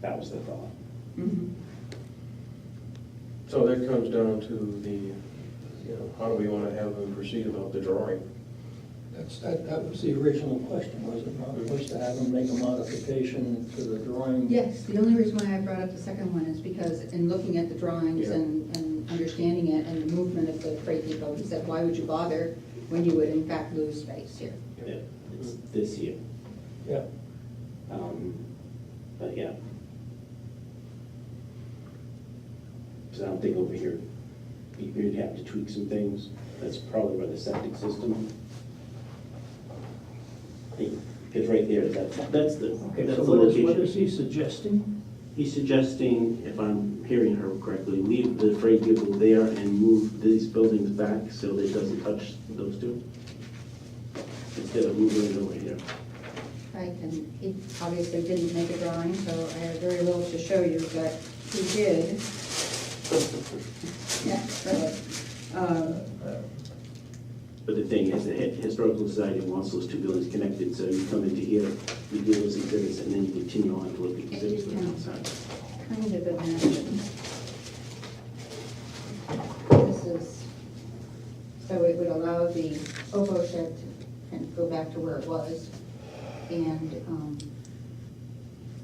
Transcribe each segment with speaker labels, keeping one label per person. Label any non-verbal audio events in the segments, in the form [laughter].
Speaker 1: That was the thought.
Speaker 2: Mm-hmm.
Speaker 3: So that comes down to the, you know, how do we want to have them proceed about the drawing?
Speaker 4: That's, that, that was the original question, was it not, was to have them make a modification to the drawing?
Speaker 2: Yes, the only reason why I brought up the second one is because in looking at the drawings
Speaker 3: Yeah.
Speaker 2: and, and understanding it and the movement of the freight depot, he said, why would you bother when you would in fact lose space here?
Speaker 1: Yeah, It's this year.
Speaker 4: Yeah,
Speaker 1: Um, But yeah. Because I don't think over here, you- you'd have to tweak some things. That's probably where the septic system. Because right there, that's, that's the,
Speaker 5: Okay,
Speaker 1: that's
Speaker 5: so
Speaker 1: the
Speaker 5: what is, what is
Speaker 1: location.
Speaker 5: he suggesting?
Speaker 1: He's suggesting, if I'm hearing her correctly, leave the freight vehicle there and move these buildings back so that it doesn't touch those two. Instead of moving it over here.
Speaker 2: Right, and he obviously didn't make a drawing, so I have very little to show you, but he did. [laughs] Yeah, really. Um,
Speaker 1: But the thing is, the Hi- Historical Society wants those two buildings connected, so you come into here, you do those exhibits, and then you continue on to look at the exhibits from outside.
Speaker 2: Kind of imagine. This is, so it would allow the oboe shed to kind of go back to where it was. And, um,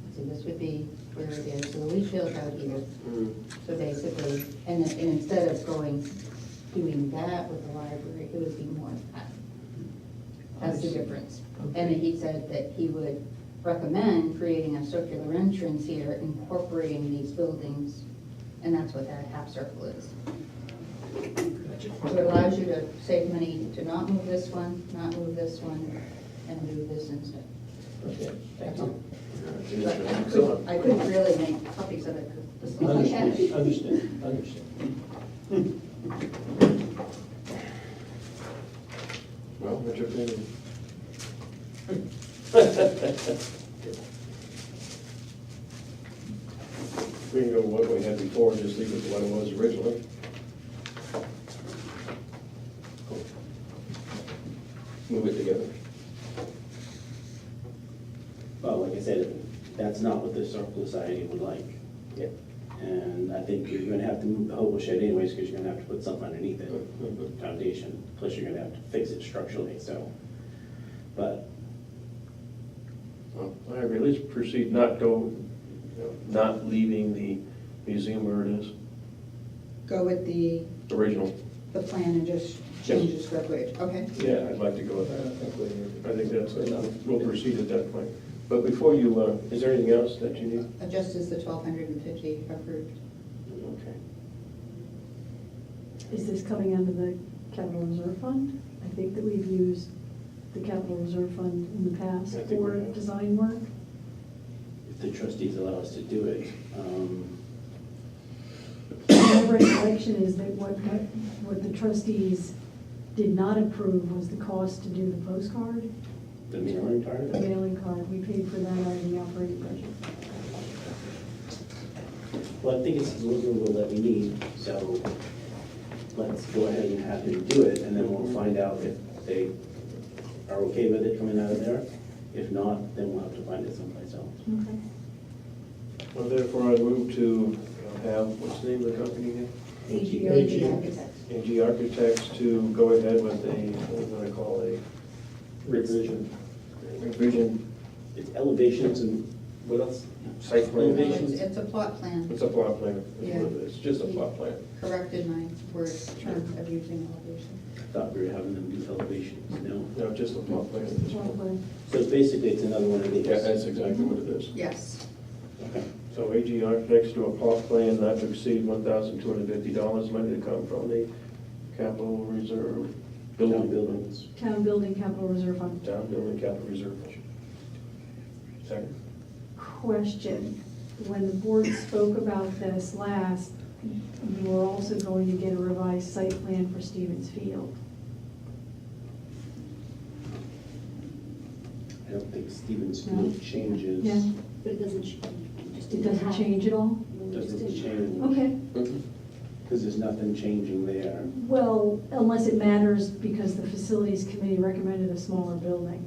Speaker 2: let's see, this would be where it is, so the leach field's out here. So basically, and then, and instead of going, doing that with the library, it would be more of that. That's the difference. And he said that he would recommend creating a circular entrance here, incorporating these buildings, and that's what that half circle is. So it allows you to save money to not move this one, not move this one, and move this instead.
Speaker 4: okay,
Speaker 2: That's
Speaker 4: thank
Speaker 2: all.
Speaker 4: you.
Speaker 3: Uh,
Speaker 2: But I couldn't, I couldn't really make copies of it because this one
Speaker 4: Understand, understand, understand.
Speaker 3: Well, what's your opinion? We can go what we had before, and just leave it what it was originally. Move it together.
Speaker 1: Well, like I said, that's not what the Historical Society would like.
Speaker 3: Yeah.
Speaker 1: And I think you're gonna have to move the hobo shed anyways, because you're gonna have to put something underneath it,
Speaker 3: Mhm.
Speaker 1: foundation, plus you're gonna have to fix it structurally, so. But
Speaker 3: Well, I agree, let's proceed, not go, not leaving the museum where it is,
Speaker 2: Go with the,
Speaker 3: original.
Speaker 2: the plan and just change the square footage, okay?
Speaker 3: Yeah, I'd like to go with
Speaker 4: I
Speaker 3: that.
Speaker 4: don't think we-
Speaker 3: I think that's, uh, we'll proceed at that point. But before you, uh, is there anything else that you need?
Speaker 2: Uh, Just as the twelve hundred and fifty approved.
Speaker 3: Okay.
Speaker 6: Is this coming out of the capital reserve fund? I think that we've used the capital reserve fund in the past
Speaker 3: I think we
Speaker 6: for
Speaker 3: have.
Speaker 6: design work.
Speaker 1: if the trustees allow us to do it, um,
Speaker 6: My recollection is that what, what what the trustees did not approve was the cost to do the postcard,
Speaker 1: the mailing part of
Speaker 6: the
Speaker 1: it.
Speaker 6: mailing card. We paid for that out of the operating budget.
Speaker 1: Well, I think it's the legal rule that we need, so let's go ahead and have them do it, and then we'll find out if they are okay with it coming out of there. If not, then we'll have to find it someplace else.
Speaker 6: Okay.
Speaker 3: Well, therefore, I move to have, what's the name of the company again?
Speaker 2: AGOD Architects.
Speaker 3: AG Architects to go ahead with a, what am I gonna call a
Speaker 1: Revision.
Speaker 3: revision
Speaker 1: It's elevations and what else?
Speaker 3: site
Speaker 2: No,
Speaker 3: plan.
Speaker 2: It's it's a plot plan,
Speaker 3: It's a plot plan, It's
Speaker 2: Yeah.
Speaker 3: what it is. it's just a plot plan.
Speaker 2: corrected my word term of using elevation.
Speaker 1: Thought we were having them do elevations, no?
Speaker 3: No, just a plot plan. at this
Speaker 6: Well,
Speaker 3: point.
Speaker 6: but
Speaker 1: So basically, it's another one of these.
Speaker 3: Yeah, that's exactly what it is.
Speaker 2: Yes.
Speaker 1: Okay.
Speaker 3: So AG Architects to a plot plan not to exceed one thousand two hundred fifty dollars, money to come from the capital reserve
Speaker 1: Town
Speaker 3: building.
Speaker 1: buildings.
Speaker 6: Town building capital reserve fund.
Speaker 3: Town building capital reserve. Second.
Speaker 6: Question, when the board spoke about this last, you were also going to get a revised site plan for Stevens Field.
Speaker 1: I don't think Stevens
Speaker 6: No.
Speaker 1: Field changes.
Speaker 6: Yeah,
Speaker 7: But it doesn't change. It just
Speaker 6: it
Speaker 7: didn't
Speaker 6: doesn't
Speaker 7: happen.
Speaker 6: change at all?
Speaker 7: It just
Speaker 1: Doesn't
Speaker 7: didn't
Speaker 1: change.
Speaker 6: Okay,
Speaker 1: Because there's nothing changing there.
Speaker 6: well, unless it matters because the facilities committee recommended a smaller building.